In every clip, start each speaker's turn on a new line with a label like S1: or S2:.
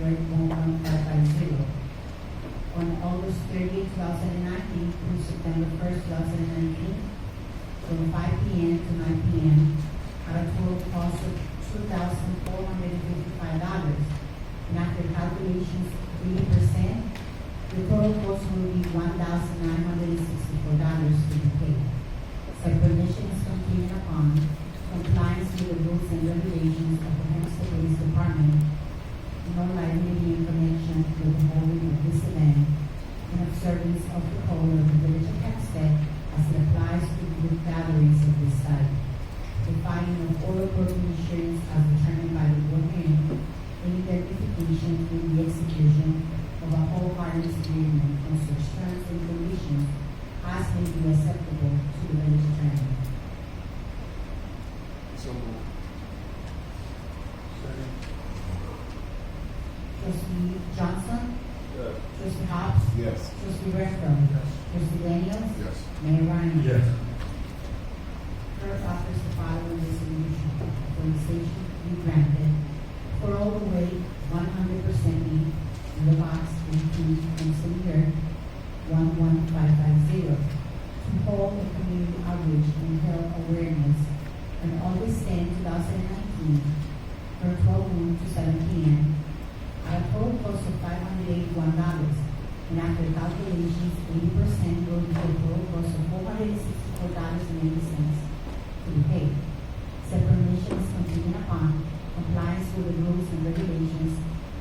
S1: Beaumont, five five zero. On August thirtieth, two thousand and nineteen, through September first, two thousand and nineteen, from five P M to nine P M, at a total cost of two thousand four hundred and fifty-five dollars. And after calculations, three percent, the total cost will be one thousand nine hundred and sixty-four dollars to be paid. Said permission is contingent upon compliance with the rules and regulations of the Hempstead Police Department, no liability in connection with the holding of this event, in observance of the code of the village of Hempstead as it applies to group gatherings of this type. The filing of all appropriate insurance as determined by the board hearing in identification in the execution of a whole harmless agreement on such terms and conditions as may be acceptable to the village attorney.
S2: So moved. Second.
S1: Trustee Johnson?
S2: Yes.
S1: Trustee Hobbs?
S2: Yes.
S1: Trustee Renfro? Trustee Daniels?
S2: Yes.
S1: Mayor Ryan? Clerk offers the following resolution. Authorization to be granted for all the way one hundred percent in the box eighteen from City one one five five zero to hold a community outreach and health awareness on August 10, 2019, from twelve noon to seven P M. At a total cost of five hundred eighty-one dollars, and after calculations, eighty percent will be the total cost of four hundred sixty-four dollars and eighty cents to be paid. Said permission is contingent upon compliance with the rules and regulations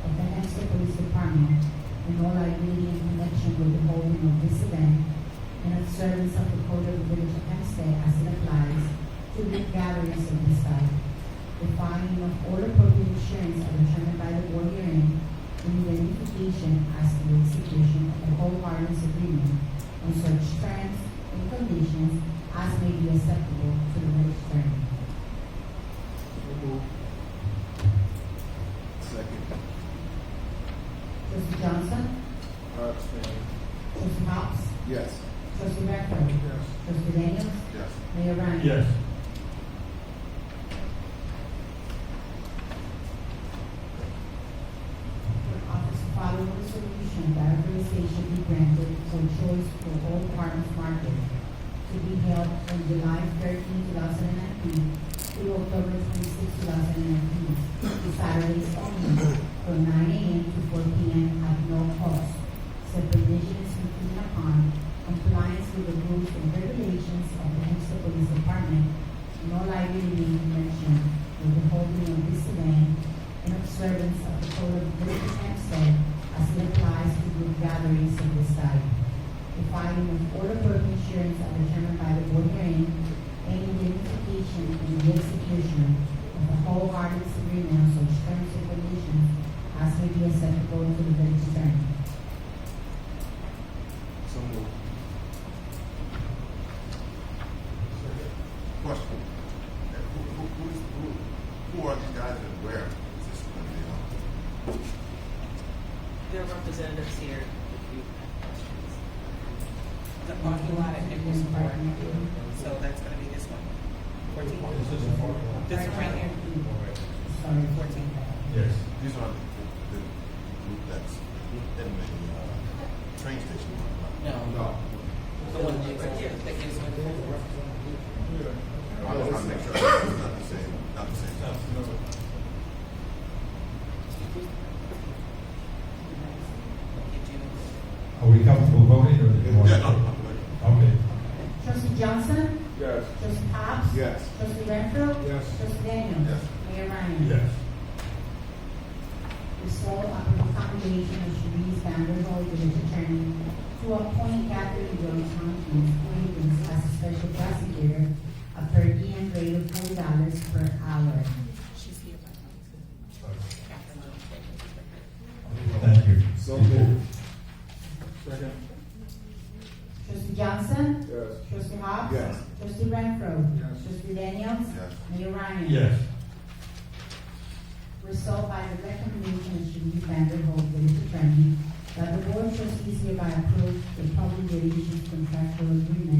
S1: of the Hempstead Police Department and all liability in connection with the holding of this event and observance of the code of the village of Hempstead as it applies to the gatherings of this type. The finding of all appropriate insurance are determined by the board hearing in identification as to the execution of the whole parties agreement on such terms and conditions as may be acceptable to the village attorney.
S2: So moved. Second.
S1: Trustee Johnson?
S2: Abstain.
S1: Trustee Hobbs?
S2: Yes.
S1: Trustee Renfro?
S2: Yes.
S1: Trustee Daniels?
S2: Yes.
S1: Mayor Ryan?
S3: Yes.
S1: Office following resolution that authorization be granted for choice for all farmers market to be held on July 13, 2019 through October 26, 2019, to Saturdays only, from 9 a.m. to 4 p.m. at no cost. Said provision is contingent upon compliance with the rules and regulations of the Hempstead Police Department, no liability in connection with the holding of this event in observance of the code of the village of Hempstead as it applies to group gatherings of this type. The filing of order book insurance are determined by the board hearing and identification and the execution of the whole harmless agreement on such terms and conditions as may be acceptable to the village attorney.
S2: So moved.
S4: Question. Who, who, who, is, who, who are these guys and where is this going to be on?
S5: There are representatives here if you have questions.
S6: the parking lot at Nichols Park. So that's gonna be this one. Fourteen. This one right here,
S1: Sorry.
S6: fourteen.
S3: Yes.
S4: These are the, the, the group that's in the uh, train station.
S6: No,
S2: No.
S6: the one that's right here, that gives one.
S4: I was trying to make sure it's not the same. Not the same.
S3: Are we comfortable voting or do you want
S4: Yeah, no,
S3: to?
S4: no, no.
S3: Okay.
S1: Trustee Johnson?
S2: Yes.
S1: Trustee Hobbs?
S2: Yes.
S1: Trustee Renfro?
S2: Yes.
S1: Trustee Daniels?
S4: Yes.
S1: Mayor Ryan?
S3: Yes.
S1: Result of the recommendation of Sharice Vanderhold, village attorney, to appoint Catherine Johnson and Quaintance as a special prosecutor, a per diem rate of forty dollars per hour.
S6: She's here by now. Catherine Jones, right?
S3: Thank you.
S2: So moved. Second.
S1: Trustee Johnson?
S2: Yes.
S1: Trustee Hobbs?
S2: Yes.
S1: Trustee Renfro?
S2: Yes.
S1: Trustee Daniels?
S4: Yes.
S1: Mayor Ryan?
S3: Yes.
S1: Resolved by the recommendation of Sharice Vanderhold, village attorney, that the board of trustees hereby approve the public relations contractual agreement uh,